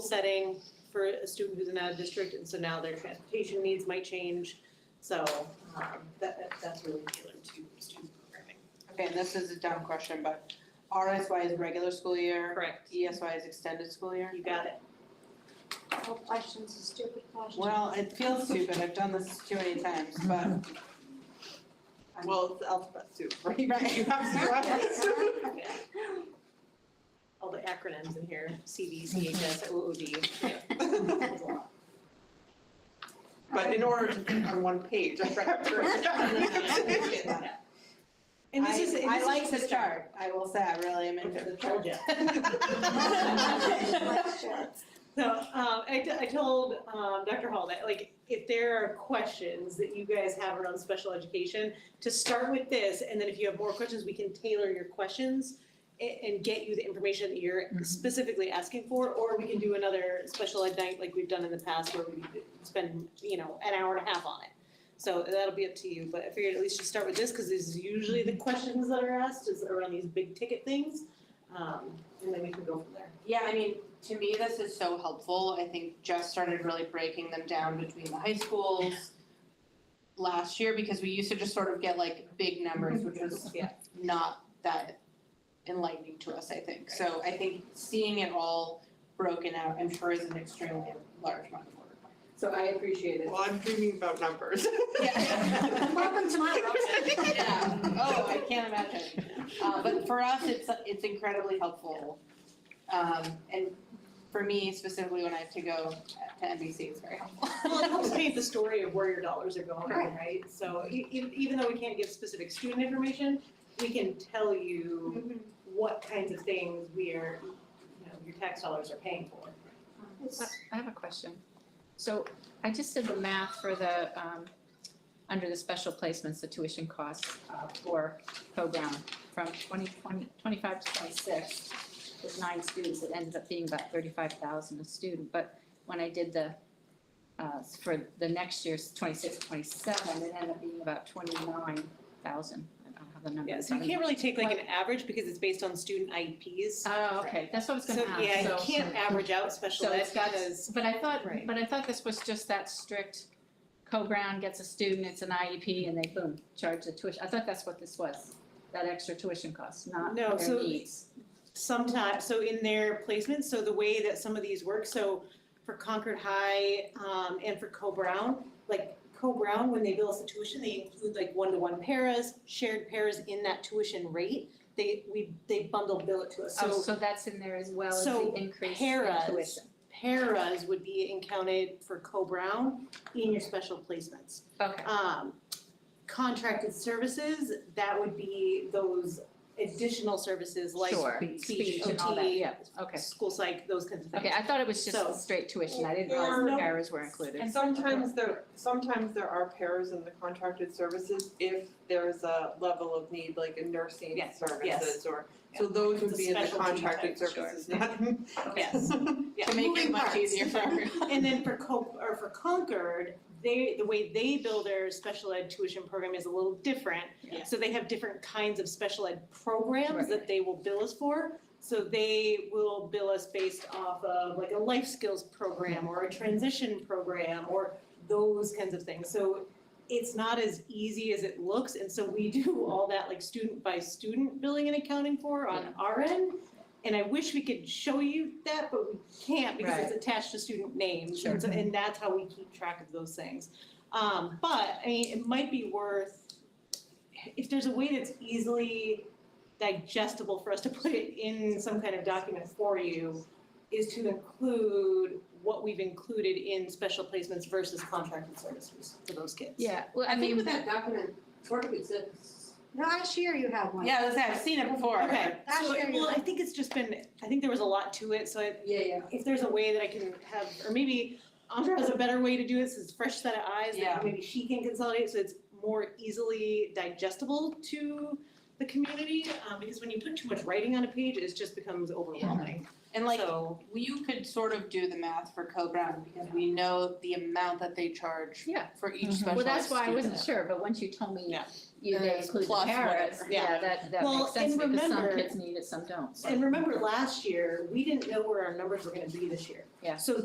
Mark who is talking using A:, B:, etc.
A: setting for a student who's an out of district, and so now their transportation needs might change. So um that that that's really tailored to student programming.
B: Okay, and this is a dumb question, but RSY is regular school year,
A: Correct.
B: ESY is extended school year?
A: You got it.
C: No questions, a stupid question.
B: Well, it feels stupid, I've done this too many times, but. I'm-
D: Well, it's alphabet soup, right?
B: Right, you have to
A: All the acronyms in here, CV, CHS, OOD.
D: But in order to be on one page, I have to. write down.
A: And this is, and
B: I, I
A: this
B: like
A: is
B: the
A: just a start.
B: chart, I will say, I really am into the chart.
A: Okay.
C: Let's check.
A: So, um, I, t- I told, um, Dr. Hall that, like, if there are questions that you guys have around special education, to start with this, and then if you have more questions, we can tailor your questions and, and get you the information that you're specifically asking for, or we can do another special ed night like we've done in the past where we spend, you know, an hour and a half on it. So that'll be up to you, but I figured at least you start with this, cause this is usually the questions that are asked is around these big ticket things. Um, and then we can go from there.
B: Yeah, I mean, to me, this is so helpful, I think Jess started really breaking them down between the high schools last year, because we used to just sort of get like big numbers, which was
A: Yeah.
B: not that enlightening to us, I think. So I think seeing it all broken out, I'm sure is an extremely large amount of work. So I appreciate it.
D: Well, I'm dreaming about numbers.
B: Yeah.
C: Welcome to my world.
B: Yeah, oh, I can't imagine. Uh, but for us, it's, it's incredibly helpful. Um, and for me specifically, when I have to go to NBC, it's very helpful.
A: Well, it helps paint the story of where your dollars are going, right? So e- e- even though we can't give specific student information, we can tell you what kinds of things we are, you know, your tax dollars are paying for.
C: It's-
E: I have a question. So I just did the math for the, um, under the special placements, the tuition costs uh, for program from 2020 25 to twenty-six. With nine students, it ended up being about thirty-five thousand a student, but when I did the, uh, for the next year's 26 to 27, it ended up being about twenty-nine thousand. I don't have the number.
A: Yeah,
E: in
A: so you
E: front of me.
A: can't really take like an average because it's based on student IEPs.
E: Oh, okay, that's what I was
A: So
E: gonna ask,
A: yeah, you
E: so-
A: can't average out special
E: So
A: ed
E: it's got-
A: because,
E: But I thought,
A: Right.
E: but I thought this was just that strict, Co-Brown gets a student, it's an IEP, and they boom, charge the tuition, I thought that's what this was, that extra tuition cost, not
A: No,
E: their
A: so-
E: needs.
A: sometimes, so in their placements, so the way that some of these work, so for Concord High, um, and for Co-Brown, like Co-Brown, when they bill us the tuition, they include like one-to-one paras, shared paras in that tuition rate. They, we, they bundle bill it to us,
E: Oh,
A: so
E: so that's in there as well as
A: so
E: the increase in
A: paras-
E: tuition.
A: paras would be accounted for Co-Brown in your special placements
E: Okay,
A: um, contracted services, that would be those additional services like
E: Sure.
A: speech,
E: Speech and all that,
A: OT,
E: yeah, okay.
A: school psych, those kinds of things.
E: Okay, I thought it was just
A: So-
E: the straight tuition, I didn't
D: Or-
E: realize the
A: no.
E: paras were included.
D: And sometimes there, sometimes there are pairs in the contracted services if there's a level of need, like in nursing
A: Yes, yes.
D: services or, so those would
A: It's a
D: be in the
A: specialty
D: contracted
A: type, sure.
D: services, not in-
A: Yes, yeah.
B: To make it
A: moving
B: much
A: parts.
B: easier for everyone.
A: And then for Co, or for Concord, they, the way they build their special ed tuition program is a little different.
E: Yeah.
A: So they have different kinds of special ed programs that
E: Right.
A: they will bill us for. So they will bill us based off of like a life skills program or a transition program or those kinds of things. So it's not as easy as it looks, and so we do all that like student by student billing and accounting for on our end. And I wish we could show you that, but we can't because it's attached to student names, and so, and that's how we keep track of those things. Um, but, I mean, it might be worth, if there's a way that's easily digestible for us to put it in some kind of document for you, is to include what we've included in special placements versus contracted services for those kids.
E: Yeah, well, I
F: I think
E: mean,
F: with that document, sort of exists.
C: Last year you had one.
B: Yeah, I was saying, I've seen it before.
A: Okay,
C: Last
A: so,
C: year you
A: well, I
C: had-
A: think it's just been, I think there was a lot to it, so I,
F: Yeah, yeah.
A: if there's a way that I can have, or maybe Andra has a better way to do it, since fresh set of eyes,
B: Yeah.
A: that maybe she can consolidate, so it's more easily digestible to the community, um, because when you put too much writing on a page, it just becomes overwhelming.
B: And like,
A: So,
B: you could sort of do the math for Co-Brown because we know the amount that they charge
E: Yeah.
B: for each specialized
E: Well,
B: student.
E: that's why I wasn't sure, but once you told me
A: Yeah.
E: you
B: Then
E: they
B: it's
E: include the
B: plus
E: paras,
B: whatever.
E: yeah,
A: Yeah.
E: that that
A: Well,
E: makes sense
A: and
E: because some
A: remember-
E: kids need it, some don't. so.
A: and remember last year, we didn't know where our numbers were gonna be this year.
E: Yeah.
A: So